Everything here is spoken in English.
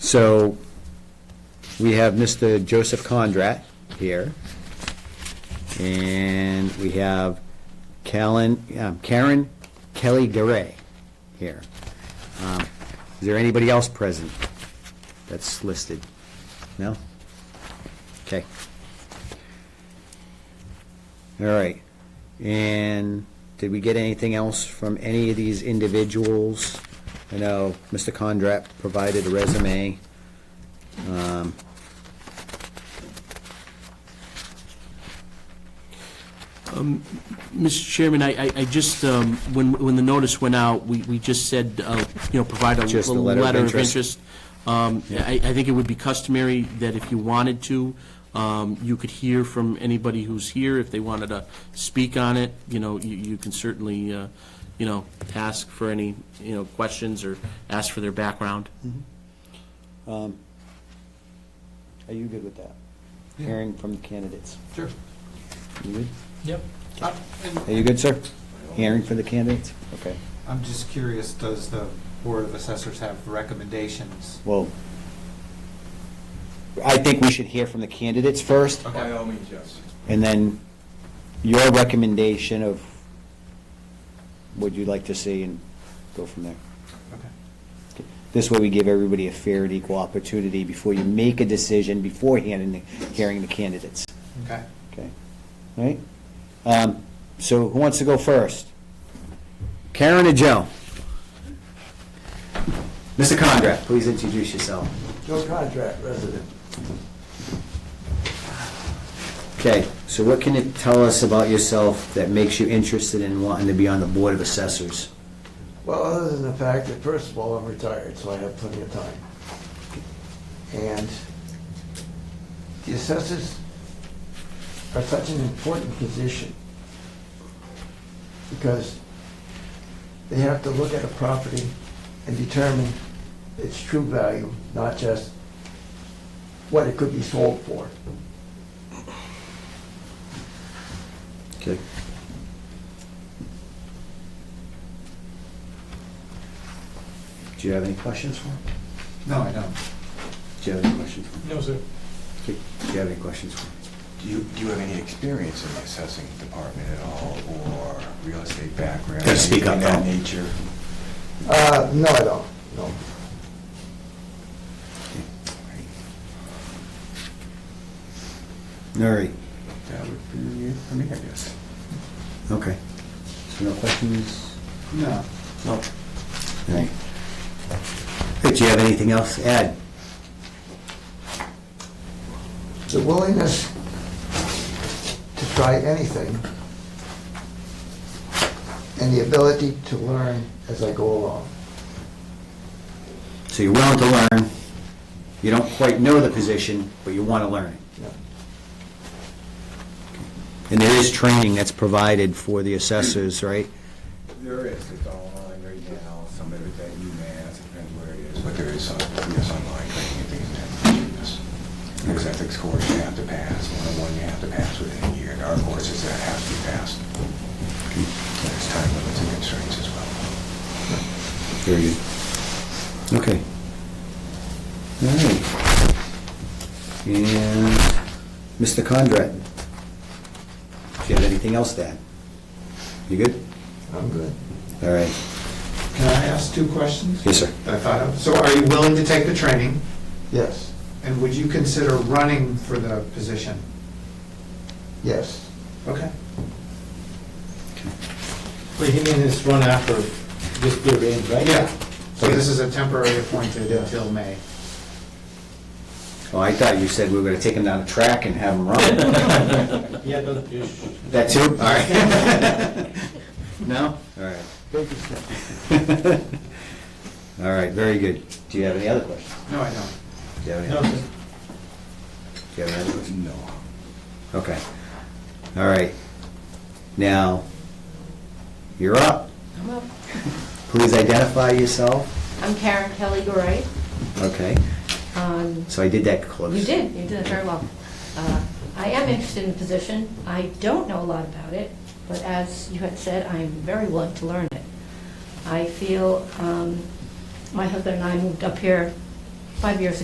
So we have Mr. Joseph Condrat here. And we have Callan- um, Karen Kelly Garay here. Um, Is there anybody else present that's listed? No? Okay. All right. And did we get anything else from any of these individuals? I know Mr. Condrat provided a resume. Um, Mr. Chairman, I, I- I just, um, when, when the notice went out, we, we just said, uh, you know, provide a Just a a letter of letter of interest. interest. Um, I, I think it would be customary that if you wanted to, um, you could hear from anybody who's here, if they wanted to speak on it, you know, you, you can certainly, uh, you know, ask for any, you know, questions or ask for their background. Are you good with that? Hearing from the candidates. Sure. You good? Yep. Uh, Are you good, sir? Hearing for the candidates? Okay. I'm just curious, does the Board of Assessors have recommendations? Well, I think we should hear from the candidates first, By all means, yes. and then your recommendation of what you'd like to see, and go from there. Okay. This way, we give everybody a fair and equal opportunity before you make a decision beforehand in the- hearing the candidates. Okay. Okay, all right. Um, So who wants to go first? Karen or Joe? Mr. Conrad, please introduce yourself. Joe Contract, resident. Okay, so what can you tell us about yourself that makes you interested in wanting to be on the Board of Assessors? Well, other than the fact that, first of all, I'm retired, so I have plenty of time. And the assessors are such an important position because they have to look at a property and determine its true value, not just what it could be sold for. Okay. Do you have any questions for him? No, I don't. Do you have any questions for him? No, sir. Do you have any questions for him? Do you, do you have any experience in the assessing department at all, or real estate background? Gotta speak up, anything though. of Uh, that nature? no, I don't, no. All right, That would be it for me, I guess. okay. So no questions? No. No. All right. Rich, do you have anything else to add? the willingness to try anything and the ability to learn as I go along. So you're willing to learn, you don't quite know the position, but you want to learn it. Yeah. And there is training that's provided for the assessors, right? There is, it's online right now, some of it that you may ask, depends where it is, but there is some, yes, online, training and things of that nature, yes. There's ethics course you have to pass, one-on-one you have to pass within a year, and our courses that have to be passed. There's time limits and constraints as well. Very good. Okay. All right. And Mr. Conrad, do you have anything else to add? You good? I'm good. All right. Can I ask two questions? Yes, sir. I thought of. So are you willing to take the training, Yes, and would you consider running for the position? yes. Okay. Well, you mean this run after this period, right? Yeah. So this is a temporary appointed until May. Oh, I thought you said we were going to take him down the track and have him run. Yeah, but you That too? All right. No? All right. Baby steps. All right, very good. Do you have any other questions? No, I don't. Do you have any no, other- Do you have any other questions? No. Okay. All right. Now, you're up. I'm up. Please identify yourself. I'm Karen Kelly Gray. Okay, Um, so I did that close. You did, you did very well. Uh, I am interested in the position. I don't know a lot about it, but as you had said, I'm very willing to learn it. I feel, um, my husband and I moved up here five years ago.